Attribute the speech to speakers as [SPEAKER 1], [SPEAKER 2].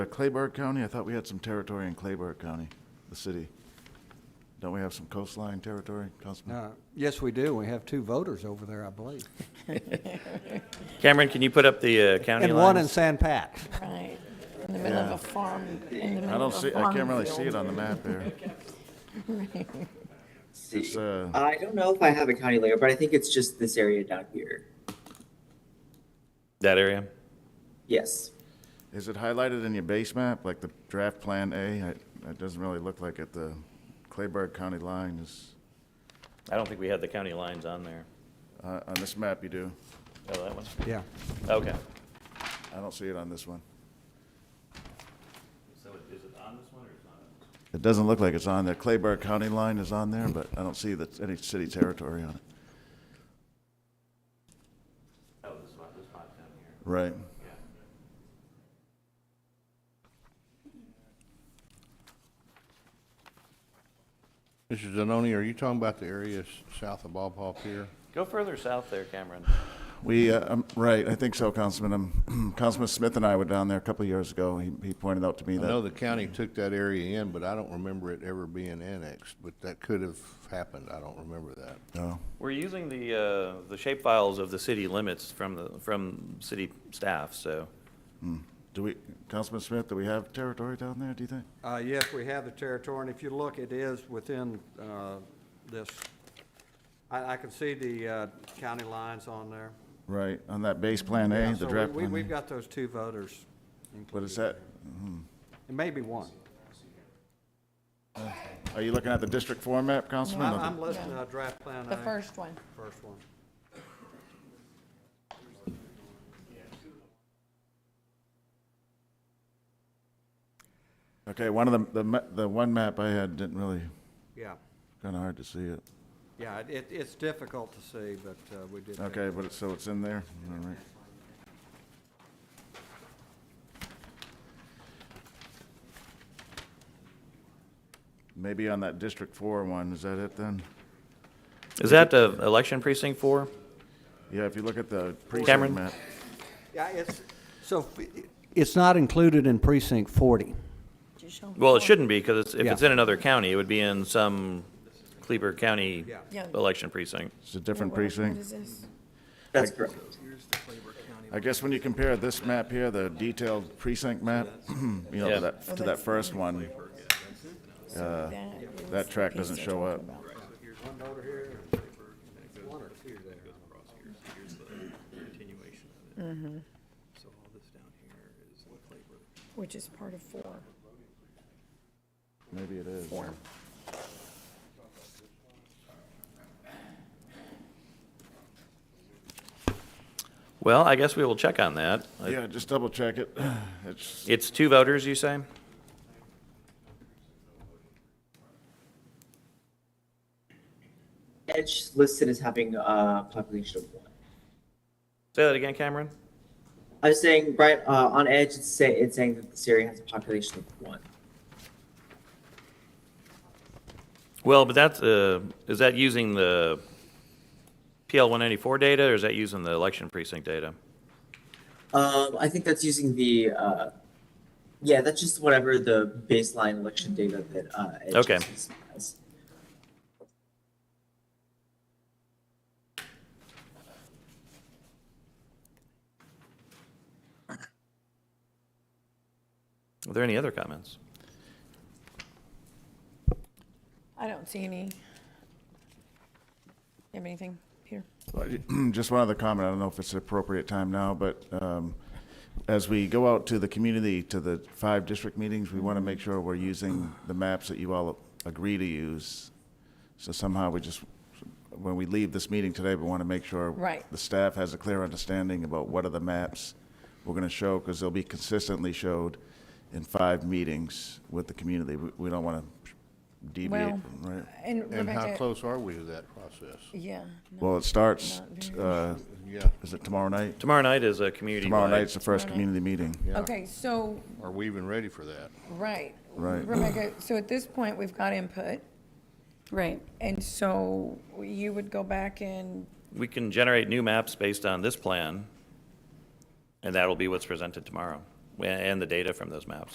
[SPEAKER 1] Uh, Clayburgh County, I thought we had some territory in Clayburgh County, the city. Don't we have some coastline territory, Councilman?
[SPEAKER 2] Uh, Yes, we do. We have two voters over there, I believe.
[SPEAKER 3] Cameron, can you put up the uh, county
[SPEAKER 2] And one in
[SPEAKER 3] lines?
[SPEAKER 2] San Pat.
[SPEAKER 4] Right, in the middle of
[SPEAKER 1] Yeah.
[SPEAKER 4] a farm, in the
[SPEAKER 1] I
[SPEAKER 4] middle
[SPEAKER 1] don't
[SPEAKER 4] of a
[SPEAKER 1] see,
[SPEAKER 4] farm
[SPEAKER 1] I can't really see it
[SPEAKER 4] field.
[SPEAKER 1] on the map there. It's,
[SPEAKER 5] See,
[SPEAKER 1] uh,
[SPEAKER 5] I don't know if I have a county layout, but I think it's just this area down here.
[SPEAKER 3] That area?
[SPEAKER 5] Yes.
[SPEAKER 1] Is it highlighted in your base map, like the draft plan A? I- It doesn't really look like it, the Clayburgh County line is,
[SPEAKER 3] I don't think we had the county lines on there.
[SPEAKER 1] uh, on this map you do.
[SPEAKER 3] Oh, that one?
[SPEAKER 2] Yeah.
[SPEAKER 3] Okay.
[SPEAKER 1] I don't see it on this one.
[SPEAKER 3] So is it on this one or it's not?
[SPEAKER 1] It doesn't look like it's on there. Clayburgh County line is on there, but I don't see that any city territory on it. Right.
[SPEAKER 6] Mr. Zanoni, are you talking about the areas south of Bob Hope here?
[SPEAKER 3] Go further south there, Cameron.
[SPEAKER 1] We, uh, um, right, I think so, Councilman. Um, Councilman Smith and I were down there a couple of years ago. He, he pointed out to me
[SPEAKER 6] I know
[SPEAKER 1] that,
[SPEAKER 6] the county took that area in, but I don't remember it ever being annexed, but that could have happened. I don't remember that.
[SPEAKER 1] oh,
[SPEAKER 3] We're using the, uh, the shape files of the city limits from the, from city staff, so.
[SPEAKER 1] do we, Councilman Smith, do we have territory down there, do you think?
[SPEAKER 2] Uh, Yes, we have the territory, and if you look, it is within uh, this, I I can see the uh, county lines on there.
[SPEAKER 1] Right, on that base plan
[SPEAKER 2] Yeah,
[SPEAKER 1] A,
[SPEAKER 2] so
[SPEAKER 1] the
[SPEAKER 2] we-
[SPEAKER 1] draft
[SPEAKER 2] we-
[SPEAKER 1] plan
[SPEAKER 2] We've
[SPEAKER 1] A.
[SPEAKER 2] got those two voters.
[SPEAKER 1] What is that?
[SPEAKER 2] It may be one.
[SPEAKER 1] Are you looking at the district four map, Councilman?
[SPEAKER 2] I'm
[SPEAKER 1] or the-
[SPEAKER 2] I'm listing a draft plan
[SPEAKER 4] The
[SPEAKER 2] A,
[SPEAKER 4] first one,
[SPEAKER 2] first one.
[SPEAKER 1] Okay, one of the, the, ma- the one map I had didn't really,
[SPEAKER 2] Yeah,
[SPEAKER 1] kinda hard to see it.
[SPEAKER 2] yeah, it- it- it's difficult to see, but uh, we did. that.
[SPEAKER 1] Okay, but it's, so it's in there, all right. Maybe on that District Four one, is that it then?
[SPEAKER 3] Is that uh, election precinct four?
[SPEAKER 1] Yeah, if you look at the precinct
[SPEAKER 3] Cameron?
[SPEAKER 1] map.
[SPEAKER 2] Yeah, it's, so it's not included in precinct 40.
[SPEAKER 4] Did you show them
[SPEAKER 3] Well, it
[SPEAKER 4] before?
[SPEAKER 3] shouldn't be, because if
[SPEAKER 2] Yeah.
[SPEAKER 3] it's in another county, it would be in some Cleaver County
[SPEAKER 2] Yeah.
[SPEAKER 4] Yeah.
[SPEAKER 3] election precinct.
[SPEAKER 1] It's a different
[SPEAKER 4] What- what
[SPEAKER 1] precinct.
[SPEAKER 4] is this?
[SPEAKER 5] That's correct.
[SPEAKER 1] I guess when you compare this map here, the detailed precinct map, you know,
[SPEAKER 3] Yeah.
[SPEAKER 1] to that, to that first one,
[SPEAKER 4] So that is
[SPEAKER 1] Uh, that
[SPEAKER 4] the
[SPEAKER 1] track
[SPEAKER 4] piece
[SPEAKER 1] doesn't
[SPEAKER 4] they're
[SPEAKER 1] show
[SPEAKER 4] talking
[SPEAKER 1] up.
[SPEAKER 4] about.
[SPEAKER 2] One voter here, one or two there.
[SPEAKER 4] Which is part of four.
[SPEAKER 1] maybe it is.
[SPEAKER 3] Well, I guess we will check on that.
[SPEAKER 1] Yeah, just double check it. It's,
[SPEAKER 3] It's two voters, you say?
[SPEAKER 5] Edge listed as having a population of one.
[SPEAKER 3] Say that again, Cameron?
[SPEAKER 5] I was saying, right, uh, on Edge, it's say, it's saying that this area has a population of one.
[SPEAKER 3] Well, but that's, uh, is that using the PL 194 data, or is that using the election precinct data?
[SPEAKER 5] Um, I think that's using the, uh, yeah, that's just whatever the baseline election data that, uh, Edge
[SPEAKER 3] Okay.
[SPEAKER 5] is- has.
[SPEAKER 3] Are there any other comments?
[SPEAKER 4] I don't see any. You have anything, Peter?
[SPEAKER 1] Just one other comment, I don't know if it's an appropriate time now, but um, as we go out to the community, to the five district meetings, we want to make sure we're using the maps that you all agree to use. So somehow we just, when we leave this meeting today, we want to make sure
[SPEAKER 4] Right.
[SPEAKER 1] the staff has a clear understanding about what are the maps we're going to show, because they'll be consistently showed in five meetings with the community. We we don't want to deviate,
[SPEAKER 4] Well,
[SPEAKER 1] from- right?
[SPEAKER 4] And
[SPEAKER 6] And how
[SPEAKER 4] Rebecca,
[SPEAKER 6] close are we to that process?
[SPEAKER 4] yeah. no,
[SPEAKER 1] Well, it starts,
[SPEAKER 4] not very
[SPEAKER 1] uh,
[SPEAKER 6] Yeah,
[SPEAKER 1] is it tomorrow night?
[SPEAKER 3] Tomorrow night is a community
[SPEAKER 1] Tomorrow
[SPEAKER 3] wide.
[SPEAKER 1] night's the first
[SPEAKER 4] Tomorrow night.
[SPEAKER 1] community meeting.
[SPEAKER 4] Okay, so,
[SPEAKER 6] are we even ready for that?
[SPEAKER 4] right.
[SPEAKER 1] Right.
[SPEAKER 4] Rebecca, so at this point, we've got input,
[SPEAKER 7] Right.
[SPEAKER 4] and so you would go back and
[SPEAKER 3] We can generate new maps based on this plan, and that'll be what's presented tomorrow, and the data from those maps.